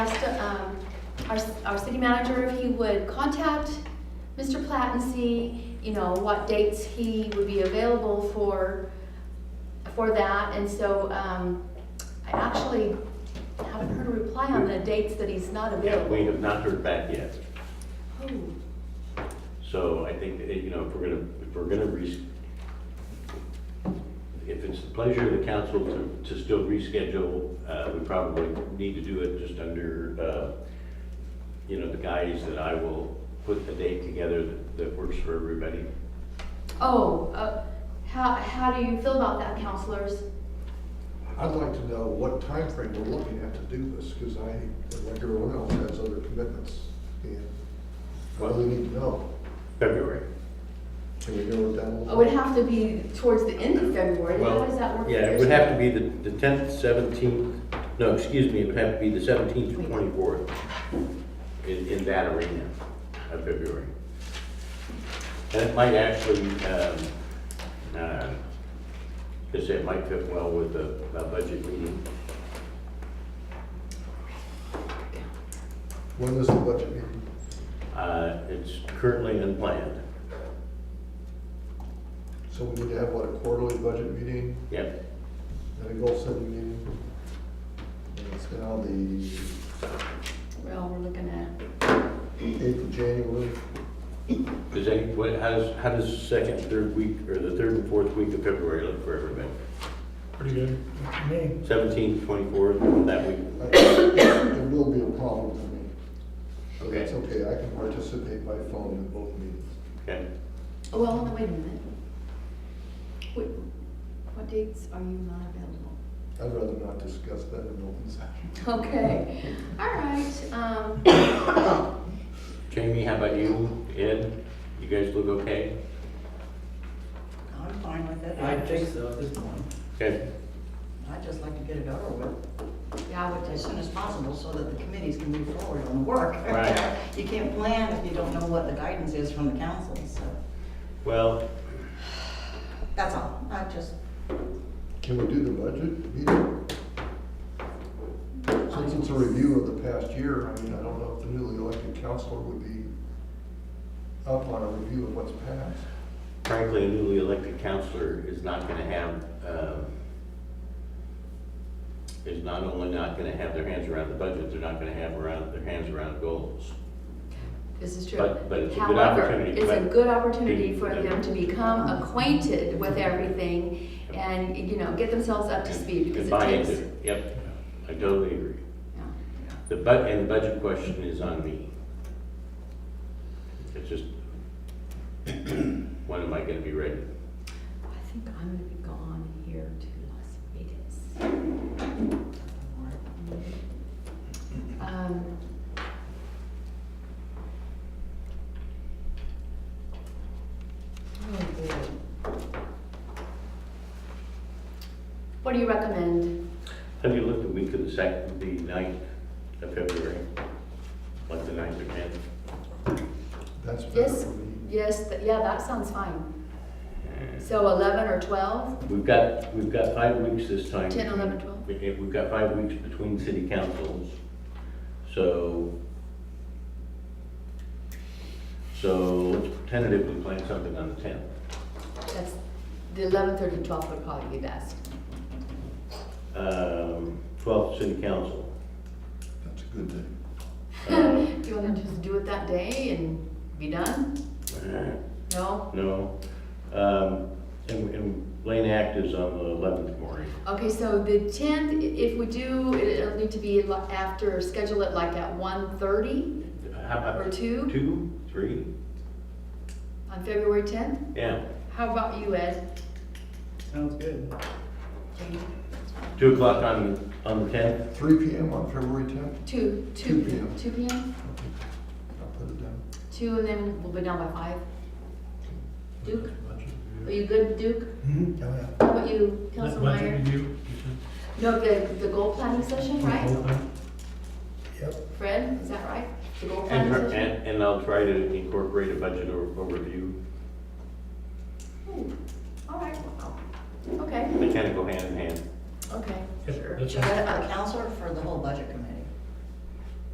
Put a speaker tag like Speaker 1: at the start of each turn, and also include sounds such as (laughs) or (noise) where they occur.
Speaker 1: um, our, our city manager, if he would contact Mr. Platt and see, you know, what dates he would be available for, for that. And so, um, I actually haven't heard a reply on the dates that he's not
Speaker 2: Yeah,
Speaker 1: available.
Speaker 2: we have not heard back yet.
Speaker 1: Oh,
Speaker 2: So I think, that, you know, if we're gonna, if we're gonna res, if it's the pleasure of the council to, to still reschedule, uh, we probably need to do it just under, uh, you know, the guise that I will put the date together that- that works for everybody.
Speaker 1: Oh, uh, how, how do you feel about that, counselors?
Speaker 3: I'd like to know what time frame we're looking at to do this, because I, like everyone else, has other commitments. And I really need to know.
Speaker 2: February.
Speaker 3: Can we go with that?
Speaker 1: It would have to be towards the end of February. How
Speaker 2: Well,
Speaker 1: does that work? for
Speaker 2: Yeah,
Speaker 1: your
Speaker 2: it would have to
Speaker 1: schedule?
Speaker 2: be the, the tenth, seventeenth, no, excuse me, it would have to be the seventeenth to twenty-fourth in, in that arena of February. And it might actually, um, uh, just say it might fit well with the, the budget meeting.
Speaker 3: When is the budget meeting?
Speaker 2: Uh, it's currently unplanned.
Speaker 3: So we need to have, what, a quarterly budget meeting
Speaker 2: Yep,
Speaker 3: and a goal setting meeting? And it's now the
Speaker 1: Well, we're looking at,
Speaker 3: eighth of January.
Speaker 2: does any, what, how does, how does the second, third week, or the third and fourth week of February look for everybody?
Speaker 4: Pretty good. Me.
Speaker 2: Seventeenth, twenty-fourth, that week?
Speaker 3: I- There will be a problem for me. But
Speaker 2: Okay.
Speaker 3: it's okay, I can participate by phone in both meetings.
Speaker 2: Okay.
Speaker 1: well, no, wait a minute. What, what dates are you not available?
Speaker 3: I'd rather not discuss that in open session.
Speaker 1: Okay, all right, um,
Speaker 2: Jamie, how about you? Ed, you guys look okay?
Speaker 5: I'm fine with it.
Speaker 4: I think so at this point.
Speaker 2: Okay,
Speaker 5: I'd just like to get it over with
Speaker 1: yeah, I would
Speaker 5: as
Speaker 1: just,
Speaker 5: soon as possible so that the committees can move forward on the work.
Speaker 2: Right.
Speaker 5: (laughs) You can't plan if you don't know what the guidance is from the council, so
Speaker 2: well,
Speaker 5: that's all. I just,
Speaker 3: Can we do the budget meeting? Since it's a review of the past year, I mean, I don't know if the newly elected councilor would be up on a review of what's passed.
Speaker 2: frankly, a newly elected counselor is not gonna have, um, is not only not gonna have their hands around the budget, they're not gonna have around, their hands around goals.
Speaker 1: this is true.
Speaker 2: But- but it's a good
Speaker 1: However,
Speaker 2: opportunity,
Speaker 1: It's a
Speaker 2: but-
Speaker 1: good opportunity for them to become acquainted with everything and, you know, get themselves up to speed because
Speaker 2: And
Speaker 1: it
Speaker 2: buy
Speaker 1: takes.
Speaker 2: into it. Yep, I totally agree.
Speaker 1: yeah.
Speaker 2: The bu, and the budget question is on me. It's just, (clears throat) when am I gonna be ready?
Speaker 1: I think I'm gonna be gone here to Las Vegas. Um, oh, boy. What do you recommend?
Speaker 2: Have you looked at week of the second, the ninth of February? Like the ninth or tenth?
Speaker 3: That's better
Speaker 1: Yes,
Speaker 3: for me.
Speaker 1: yes, th- yeah, that sounds fine. So eleven or twelve?
Speaker 2: We've got, we've got five weeks this time.
Speaker 1: 10, 11, 12.
Speaker 2: We- eh, We've got five weeks between city councils, so. So let's tentatively plan something on the tenth.
Speaker 1: That's, the eleven thirty, twelve would probably be best. (laughs)
Speaker 2: Um, twelfth, city council. (clears throat)
Speaker 3: That's a good thing.
Speaker 2: Uh,
Speaker 1: Do you wanna just do it that day and be done? No?
Speaker 2: No. Um, and, and Lane Act is on the eleventh morning.
Speaker 1: Okay, so the tenth, if we do, it- it'll need to be li- after, schedule it like at one thirty
Speaker 2: How
Speaker 1: or
Speaker 2: about
Speaker 1: two
Speaker 2: two, three?
Speaker 1: on February tenth?
Speaker 2: Yeah.
Speaker 1: How about you, Ed?
Speaker 4: Sounds good.
Speaker 2: Two o'clock on, on the tenth?
Speaker 3: Three P M on February tenth,
Speaker 1: Two, two,
Speaker 3: 2 p.m.
Speaker 1: two P M?
Speaker 3: I'll put it down.
Speaker 1: Two, and then we'll be done by five. Duke, are you good, Duke?
Speaker 3: Oh, yeah.
Speaker 1: How about you, Council
Speaker 4: Budget
Speaker 1: Meyer?
Speaker 4: review.
Speaker 1: No, the, the goal planning session, right?
Speaker 3: Yep.
Speaker 1: Fred, is that right? The goal
Speaker 2: And,
Speaker 1: planning
Speaker 2: her-
Speaker 1: session?
Speaker 2: and, and I'll try to incorporate a budget o- overview.
Speaker 1: Ooh, All right, okay,
Speaker 2: They kind of go hand in hand.
Speaker 1: okay,
Speaker 4: Yep,
Speaker 1: sure.
Speaker 4: that's
Speaker 1: Sure,
Speaker 4: fine.
Speaker 5: for
Speaker 1: I-
Speaker 5: the council or for the whole budget committee?